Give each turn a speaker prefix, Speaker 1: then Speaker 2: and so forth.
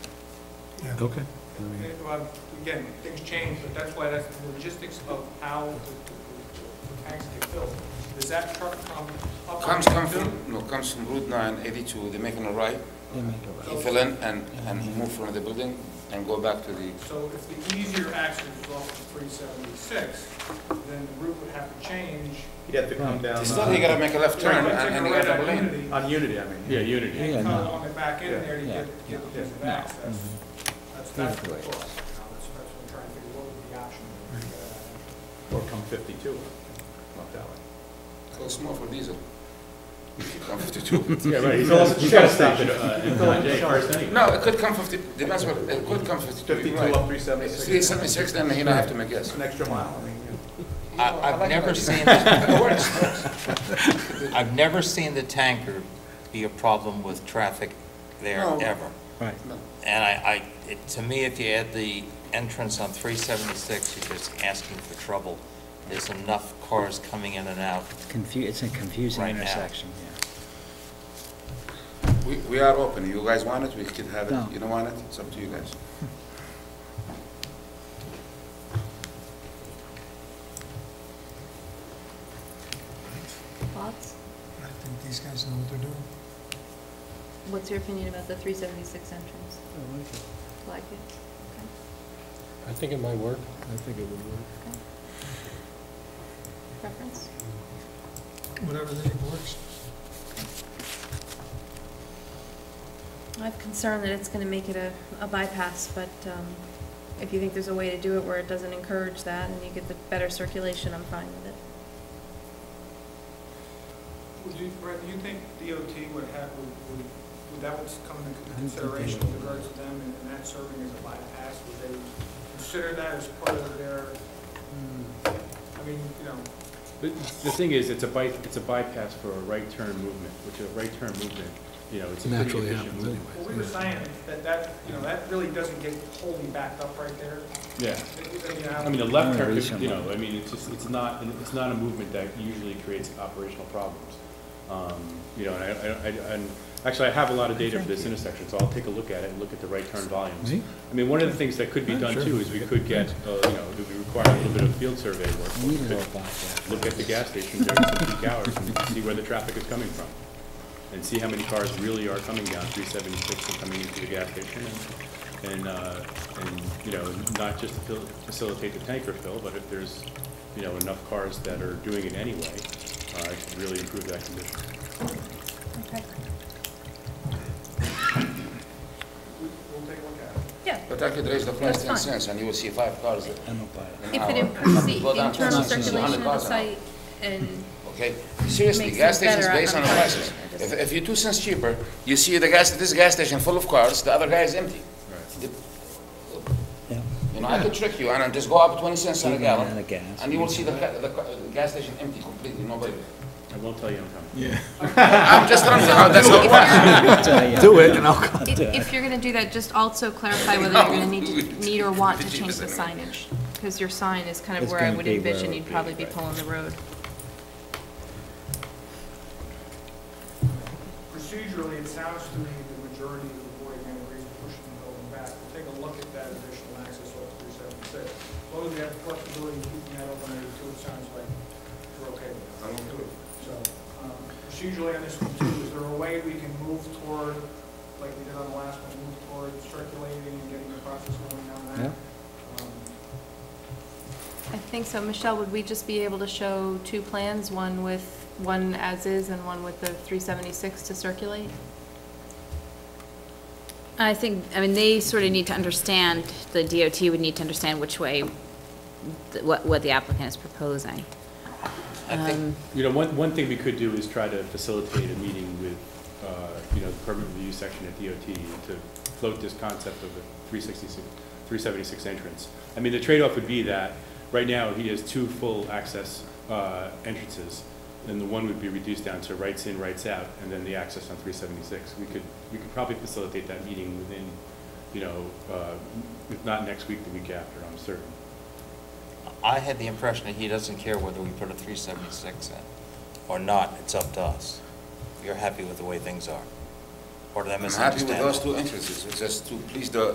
Speaker 1: Okay.
Speaker 2: Uh, well, Again, things change, but that's why that's the logistics of how the- the the tanks get filled. Does that truck come up?
Speaker 3: Comes, comes from, no, comes from Route 9, 82, they make a right, he fill in and, and he move from the building and go back to the,
Speaker 2: So if the easier access is off of 376, then the route would have to change.
Speaker 4: He'd have to come down
Speaker 3: still he gotta
Speaker 4: uh,
Speaker 3: make a left turn
Speaker 2: Right,
Speaker 3: and and he
Speaker 2: take a
Speaker 3: gotta
Speaker 2: right
Speaker 3: pull
Speaker 2: on
Speaker 3: in.
Speaker 2: Unity
Speaker 4: on Unity, I mean.
Speaker 5: Yeah, Unity.
Speaker 1: Yeah,
Speaker 2: And cut
Speaker 1: no.
Speaker 2: on the back end there to
Speaker 4: Yeah.
Speaker 2: get, get the ease of
Speaker 4: Yeah.
Speaker 2: access. That's, that's the
Speaker 1: Either way.
Speaker 2: cost. Now, That's, that's what I'm trying to figure, what would be the option? to get at that?
Speaker 4: Or come 52, not that way.
Speaker 3: So it's more for diesel. Come 52.
Speaker 5: Yeah, right.
Speaker 4: He's also
Speaker 5: He's got to
Speaker 4: shell
Speaker 5: stop
Speaker 4: station.
Speaker 5: it, uh, in Tajay first anyway.
Speaker 3: No, it could come 50, depends what, it could come 52.
Speaker 4: 52
Speaker 3: right.
Speaker 4: up
Speaker 3: It's
Speaker 4: 376,
Speaker 3: 376, then he don't have to make yes.
Speaker 4: it's an extra mile, I mean, you know.
Speaker 3: Oh,
Speaker 6: I- I've never seen,
Speaker 3: It works.
Speaker 6: I've never seen the tanker be a problem with traffic there
Speaker 3: No.
Speaker 6: ever.
Speaker 1: Right.
Speaker 6: And I, I, it- to me, if you add the entrance on 376, you're just asking for trouble. There's enough cars coming in and out.
Speaker 1: Confu, it's a confusing
Speaker 6: Right now.
Speaker 1: intersection, yeah.
Speaker 3: We, we are open, you guys want it, we could have
Speaker 1: No.
Speaker 3: it, you don't want it, it's up to you guys.
Speaker 7: Thoughts?
Speaker 8: I think these guys know what they're doing.
Speaker 7: What's your opinion about the three seventy-six entrance? I like it. Like it?
Speaker 9: I think it might work.
Speaker 7: Preference?
Speaker 8: Whatever they think works.
Speaker 7: I have concern that it's gonna make it a, a bypass, but, um, if you think there's a way to do it where it doesn't encourage that and you get the better circulation, I'm fine with it.
Speaker 2: Would you, Brett, do you think DOT would have, would, would, would that would come into consideration with regards to them and and that serving as a bypass? Would they consider that as part of their,
Speaker 5: Hmm.
Speaker 2: I mean, you know,
Speaker 5: The the thing is, it's a by, it's a bypass for a right turn movement, which a right turn movement, you know, it's a pretty
Speaker 9: Naturally
Speaker 5: efficient
Speaker 9: happens
Speaker 5: movement.
Speaker 2: well, we were
Speaker 9: anyway.
Speaker 2: saying that that, you know, that really doesn't get wholly backed up right there.
Speaker 5: Yeah.
Speaker 2: You
Speaker 5: I
Speaker 2: know,
Speaker 5: mean, the left
Speaker 1: Yeah,
Speaker 5: turn,
Speaker 1: reach
Speaker 5: could- you
Speaker 1: them.
Speaker 5: know, I mean, it's just, it's not, it's not a movement that usually creates operational problems. Um, You know, and I, I- I, and actually, I have a lot of data for this intersection, so I'll take a look at it and look at the right turn volumes.
Speaker 1: Me?
Speaker 5: I mean, one of the things that could be done
Speaker 1: sure.
Speaker 5: too is we could get, uh, you know, it would require a little bit of field survey work.
Speaker 1: We
Speaker 5: We
Speaker 1: need a little
Speaker 5: could
Speaker 1: back
Speaker 5: Look at the gas station during some peak hours and see where the traffic is coming from. And see how many cars really are coming down three seventy-six and coming into the gas station and, and, uh, and, you know, not just to fil- facilitate the tanker fill, but if there's, you know, enough cars that are doing it anyway, uh, it could really improve that condition.
Speaker 7: Okay.
Speaker 2: we'll take a look at it.
Speaker 7: Yeah,
Speaker 3: But I could raise the price
Speaker 7: That's
Speaker 3: ten
Speaker 7: fine.
Speaker 3: cents and you will see five cars there.
Speaker 1: I don't buy it.
Speaker 3: an
Speaker 7: if
Speaker 3: hour.
Speaker 7: it improves the
Speaker 3: Go down to
Speaker 7: internal
Speaker 3: 60,
Speaker 7: circulation
Speaker 3: 100
Speaker 7: of the
Speaker 3: cars an hour.
Speaker 7: site and
Speaker 3: Okay, seriously,
Speaker 7: Makes
Speaker 3: gas
Speaker 7: it better
Speaker 3: stations based on
Speaker 7: on- on
Speaker 3: prices.
Speaker 7: price.
Speaker 3: If, if you two cents cheaper, you see the gas, this gas station full of cars, the other guy is empty.
Speaker 1: Yeah.
Speaker 3: You know, I could trick you and I'll just go up twenty cents on a
Speaker 1: Even on the
Speaker 3: gallon.
Speaker 1: gas,
Speaker 3: And you will see the, ca- the, ca- the gas station empty completely, nobody.
Speaker 5: I won't tell you I'm coming.
Speaker 3: I'm just telling you how that's how it works.
Speaker 1: Do it and I'll come.
Speaker 7: If, if you're gonna do that, just also clarify whether you're gonna need, to- need or want to change the signage, because your sign is kind of
Speaker 1: It's
Speaker 7: where I
Speaker 1: gonna
Speaker 7: would
Speaker 1: be where
Speaker 7: envision
Speaker 1: it
Speaker 7: you'd
Speaker 1: would
Speaker 7: probably be pulling the road.
Speaker 2: Procedurally, it sounds to me the majority of the board and agrees with pushing the building back. We'll take a look at that additional access off three seventy-six. As long as we have flexibility in keeping that open area too, it sounds like we're okay with that. So, um, procedurally on this one too, is there a way we can move toward, like we did on the last one, move toward circulating and getting the process going down that? Um,
Speaker 7: I think so. Michelle, would we just be able to show two plans, one with, one as-is and one with the 376 to circulate?
Speaker 10: I think, I mean, they sort of need to understand, the DOT would need to understand which way, th- what, what the applicant is proposing.
Speaker 6: I think,
Speaker 5: You know, one, one thing we could do is try to facilitate a meeting with, uh, you know, the permit review section at DOT to float this concept of the 366, 376 entrance. I mean, the trade-off would be that, right now, he has two full access uh, entrances, and the one would be reduced down to rights in, rights out, and then the access on 376. We could, we could probably facilitate that meeting within, you know, uh, if not next week, the week after, I'm certain.
Speaker 6: I had the impression that he doesn't care whether we put a 376 in or not, it's up to us. You're happy with the way things are? Or did I
Speaker 3: I'm happy
Speaker 6: misunderstand?
Speaker 3: with those two entrances, it's just to please the,